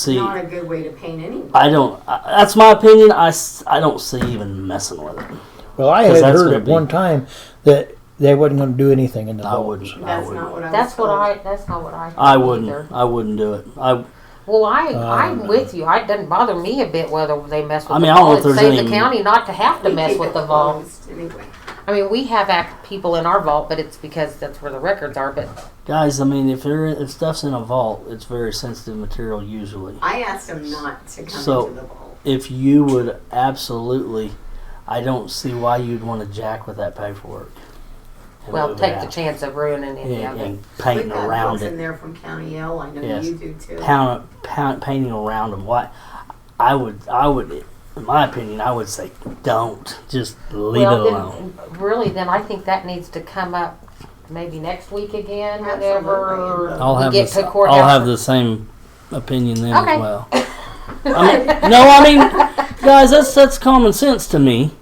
see. Not a good way to paint anyone. I don't. I, that's my opinion. I, s- I don't see even messing with it. Well, I 'Cause had that's heard gonna at be- one time that they wasn't going to do anything in the I polls. wouldn't. I That's wouldn't. not what I was That's what told. I. That's not what I. I thought wouldn't. either. I wouldn't do it. I Well, I I'm Um, with you. I- It doesn't bother me a bit whether they mess with. I mean, the I don't vol. know if It there's saved any- the county not to have to We mess keep with it the vault. closed Anyway. I mean, we have act people in our vault, but it's because that's where the records are. But guys. I mean, if there if stuff's in a vault, it's very sensitive material usually. I asked him not to come So- into the vault. If you would absolutely, I don't see why you'd want to jack with that paperwork. and well, move it take the out. chance of ruining and, any of it. and We've painting got around folks it. in there from County L. I know Yes. you do too. pound, pound, painting around them. Why? I would, I would, in my opinion, I would say don't. Just leave well, it alone. Then, really, then I think that needs to come up maybe next week again, Absolutely. whenever I'll we have get this, to courthouse. I'll have the same opinion then Okay. as well. I mean, no, I mean, guys, that's that's common sense to me.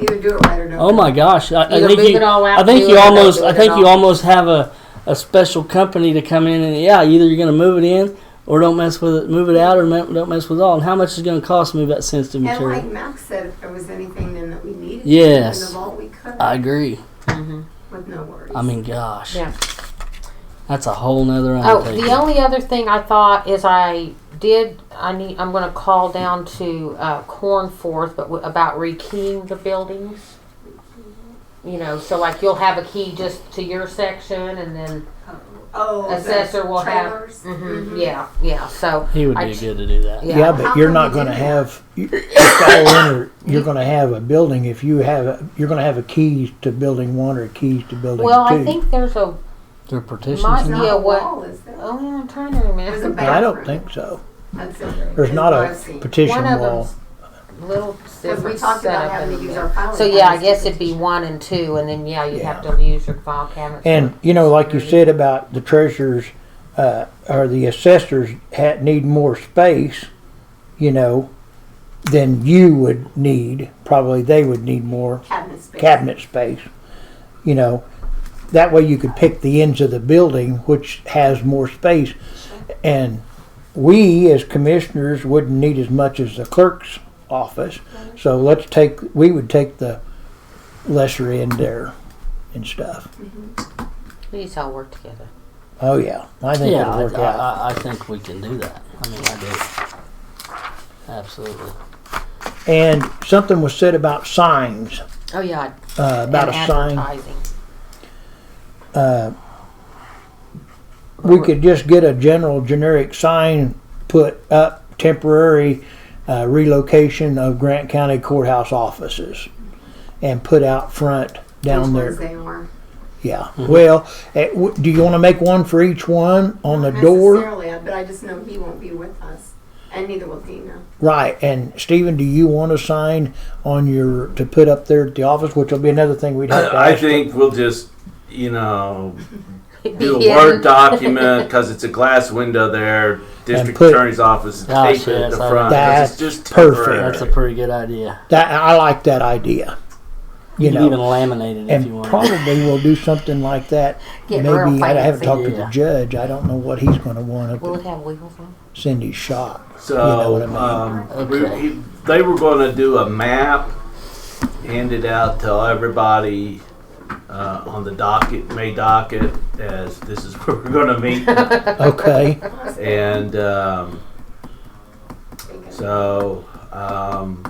Either do it right or don't. Oh my gosh, I, I Either think move you, it all out, I think do you it, or don't almost, do I it think at you all. almost have a, a special company to come in and yeah, either you're going to move it in or don't mess with it, move it out or me- don't mess with it all. And how much is it going to cost to move that sensitive And material? like Max said, if there was anything then that we needed in Yes. the vault, we could I agree. Mhm. with no worries. I mean, gosh. Yeah. That's a whole nother Oh, undertaking. the only other thing I thought is I did. I need. I'm going to call down to uh, Cornforth, but w- about rekeying the buildings. You know, so like you'll have a key just to your section, and then oh, the assessor will have- trailers? Mm-hmm. Mhm, yeah, yeah. So he would I be ch- good to do that. yeah. Yeah, How but you're can not we going to do have you, it's all in or- you're going to have a building if you have a, you're going to have a keys to building one or keys to building Well, two. I think there's a. They're partitions. My- It's now. not Yeah, a what- wall, is there? Oh, yeah, I'm trying to There's a remember. But I don't bathroom. think so. That's it. There's That's not what a I've seen. petition One of wall. them's little Because we different talked about setup having to in use there. our filing. So yeah, I cabinets guess to it'd be one and two, and then yeah, you would have Yeah. to use your file cabinet. And you know, like you said about the treasurers uh, or the assessors had, need more space, you know, than you would need. Probably they would need more Cabinet space. cabinet space. You know, that way you could pick the ends of the building which has more space, and we as commissioners wouldn't need as much as the clerk's office. So let's take we would take the lesser end there and stuff. These all work together. Oh yeah, I think Yeah, it'll I, work I, out. I- I think we can do that. I mean, I do. Absolutely. And something was said about signs, Oh yeah, uh, about a and sign. advertising. Uh, we could just get a general generic sign put up temporary uh, relocation of Grant County courthouse offices and put out front down Which ones there. they are. Yeah. Well, eh, w- do you want to make one for each one on the Not door? necessarily, but I just know he won't be with us, and neither will Dina. Right. And Stephen, do you want a sign on your to put up there at the office, which will be another thing we'd have to I ask for? think we'll just, you know, do a Yeah. Word document because it's a glass window there. District put- Attorney's Office and Gosh, tape it at yes, the I front. 'cause That's it's just perfect. temporary. That's a pretty good idea. That I like that idea. You, You can even know, laminate it if you and want. probably we'll do something like that. Get real Maybe I haven't fancy. talked to the Yeah. judge. I don't know what he's going to want up Will it at have wheels on? Cindy's shop. So know what I mean. um, we- Okay. he- they were going to do a map, hand it out to everybody uh, on the docket, May docket, as this is where we're going to meet. Okay, and um, so um,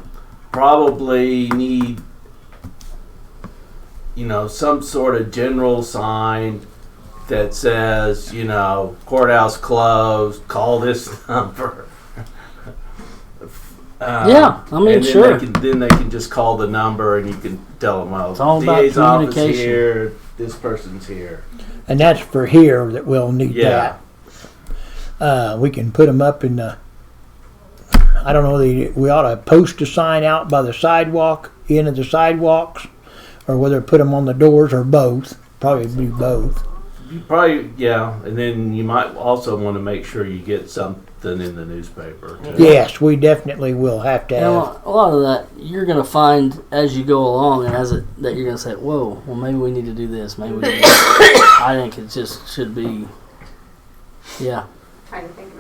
probably need, you know, some sort of general sign that says, you know, courthouse closed, call this number. Um, Yeah, I mean, and then sure. They can, then they can just call the number, and you can tell them, well, It's all about DA's office communication. here, this person's here. and that's for here that we'll need Yeah. that. Uh, we can put them up in the. I don't know. The, we ought to post a sign out by the sidewalk, end of the sidewalks, or whether put them on the doors or both. Probably do both. You probably, yeah, and then you might also want to make sure you get something in the newspaper. too. Yes, we definitely will have to You have. know, a lot of that you're gonna find as you go along, and as it that you're gonna say, "Whoa, well maybe we need to do this." Maybe we need to-" I think it just should be, yeah, Trying to think of